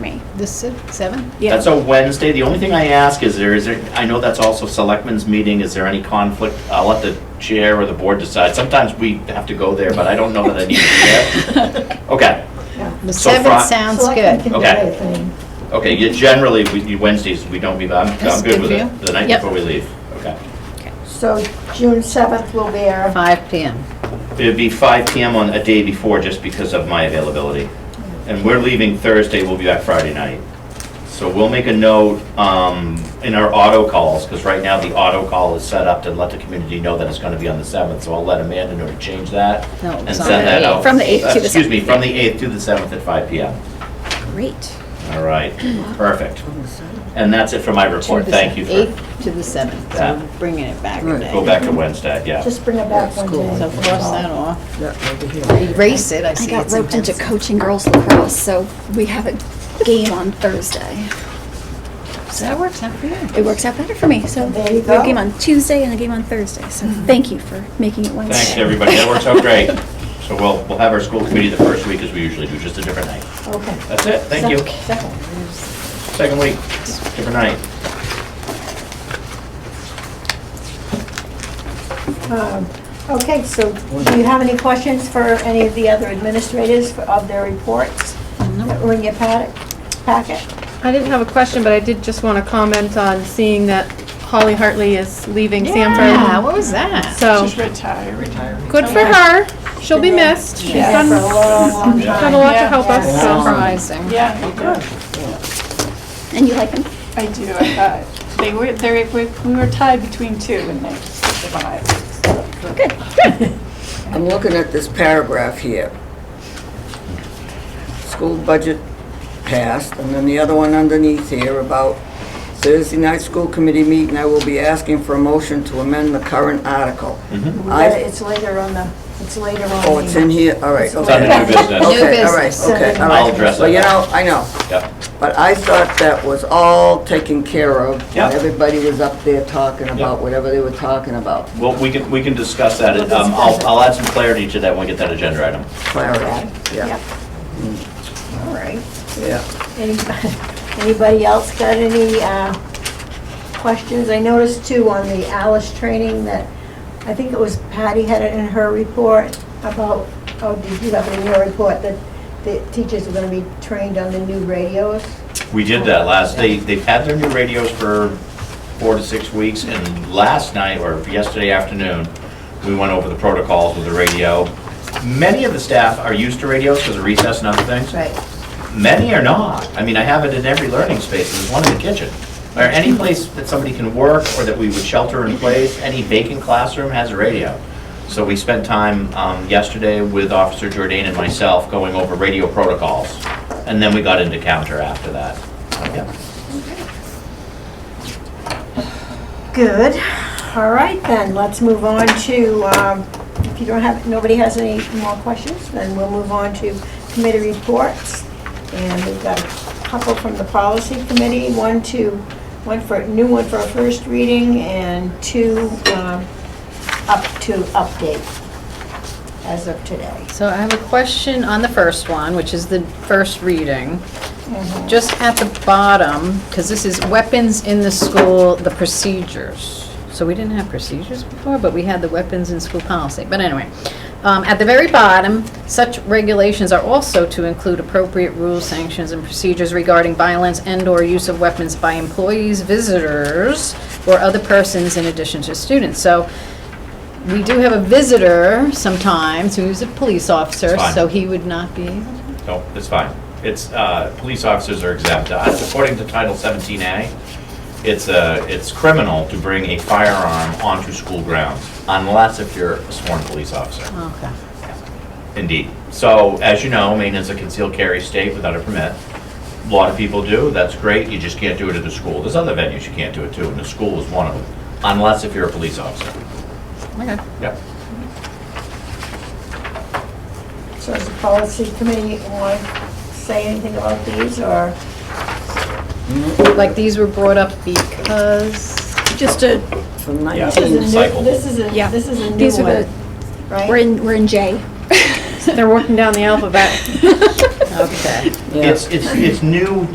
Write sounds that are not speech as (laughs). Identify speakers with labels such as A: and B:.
A: the se- seventh?
B: Yeah.
C: That's a Wednesday. The only thing I ask is there, is there, I know that's also selectmen's meeting. Is there any conflict? I'll let the chair or the board decide. Sometimes we have to go there, but I don't know that I need to be
A: (laughs)
C: there. Okay,
A: (laughs) The
C: So
A: seventh
C: Fri-
A: sounds
D: Selectmen
A: good.
D: can do
C: Okay.
D: their thing.
C: okay, yeah, generally, we- you- Wednesdays, we don't be, I'm,
A: That's
C: I'm
A: good
C: good with
A: for
C: it.
A: you?
C: The night
A: Yep.
C: before we leave, okay.
D: So June 7th will be our,
A: Five PM.
C: It'd be five PM on a day before, just because of my availability. And we're leaving Thursday, we'll be back Friday night. So we'll make a note um, in our auto calls, because right now the auto call is set up to let the community know that it's going to be on the 7th. So I'll let Amanda know to change that
A: No,
C: and
A: it's on
C: send
A: the
C: that
A: 8th.
C: out. Uh,
B: From the 8th to the
C: Excuse me,
B: 7th,
C: from the 8th to the 7th at five PM.
B: Great.
C: All right, perfect. And that's it for my report.
A: To the
C: Thank you for,
A: Eighth to the seventh, so
C: Yeah.
A: we're bringing it back a
E: Right.
A: day.
C: go back to Wednesday, yeah.
D: just bring it back one
E: School.
D: day.
A: So cross that off,
E: That over here.
A: erase it, I
F: I
A: see
F: got
A: it's in
F: roped into
A: pencil.
F: coaching girls lacrosse, so we have a game on Thursday.
A: So that works out for you.
F: It works out better for me, so.
D: There you
F: we have
D: go.
F: a game on Tuesday and a game on Thursday, so thank you for making it Wednesday.
C: Thanks, everybody. That works out great. So we'll, we'll have our school committee the first week as we usually do, just a different night.
D: Okay.
C: That's it, thank you.
D: Second.
C: Second week, different night.
D: Um, Okay, so do you have any questions for any of the other administrators for- of their reports that were in your packet? Packet.
G: I didn't have a question, but I did just want to comment on seeing that Holly Hartley is leaving
A: Yeah,
G: Sanford.
A: what was that?
G: So, good for her. She'll be missed. She's
D: Yeah,
G: done,
D: for a long, long
C: Yeah.
G: done a
D: time.
G: lot to help us, so.
A: Surprising.
F: And you like them?
H: I do, I thought. They were, they were, we were tied between two and they survived.
E: I'm looking at this paragraph here. School budget passed, and then the other one underneath here about Thursday night school committee meeting, I will be asking for a motion to amend the current article.
D: Yeah,
E: I,
D: It's later on the, it's later on.
E: oh, it's in here, all right,
C: It's on the
E: okay.
C: new business.
E: Okay, all right,
A: business.
E: okay, all right.
C: I'll address
E: Well,
C: it.
E: you know, I know,
C: Yep.
E: but I thought that was all taken care of.
C: Yeah.
E: when Everybody was up there talking about
C: Yeah.
E: whatever they were talking about,
C: Well, we can, we can discuss that. Um, I'll, I'll add some clarity to that when we get that agenda item.
E: clarity, yeah,
D: All right.
E: yeah.
D: Anybody anybody else got any uh, questions? I noticed too on the Alice training that, I think it was Patty had it in her report about, oh, did you have it in your report, that the teachers are going to be trained on the new radios?
C: We did that last, they, they've had their new radios for four to six weeks, and last night, or yesterday afternoon, we went over the protocols with the radio. Many of the staff are used to radios because of recess and other things.
D: Right.
C: Many are not. I mean, I have it in every learning space, there's one in the kitchen. Or any place that somebody can work or that we would shelter in place, any vacant classroom has a radio. So we spent time um, yesterday with Officer Jordan and myself going over radio protocols. And then we got into counter after that. Yeah.
D: Good. All right then, let's move on to, um, if you don't have, nobody has any more questions, then we'll move on to committee reports. And we've got a couple from the policy committee, one to, one for, new one for a first reading and two um, up to update as of today.
A: So I have a question on the first one, which is the first reading. Just at the bottom, because this is weapons in the school, the procedures. So we didn't have procedures before, but we had the weapons in school policy. But anyway, um, at the very bottom, such regulations are also to include appropriate rules, sanctions, and procedures regarding violence and/or use of weapons by employees, visitors, or other persons in addition to students. So we do have a visitor sometimes who's a police officer,
C: It's fine.
A: so he would not be able
C: No, it's fine. It's, uh, police officers are exempt. Uh, According to Title 17A, it's, uh, it's criminal to bring a firearm onto school grounds unless if you're a sworn police officer.
A: Okay.
C: Indeed. So, as you know, Maine is a concealed carry state without a permit. A lot of people do, that's great, you just can't do it at the school. There's other venues you can't do it to, and the school is one of them, unless if you're a police officer.
A: Okay.
C: Yep.
D: So does the policy committee want to say anything about these or?
A: Like, these were brought up because,
B: Just a,
E: From
C: Yeah.
E: 19
D: This is a new-
C: Cycle.
D: This is a,
B: Yeah.
D: this is a new
F: These are the-
D: one, right?
F: we're in, we're in J.
G: They're working down the alphabet.
A: okay.
E: Yeah.
C: It's, it's, it's new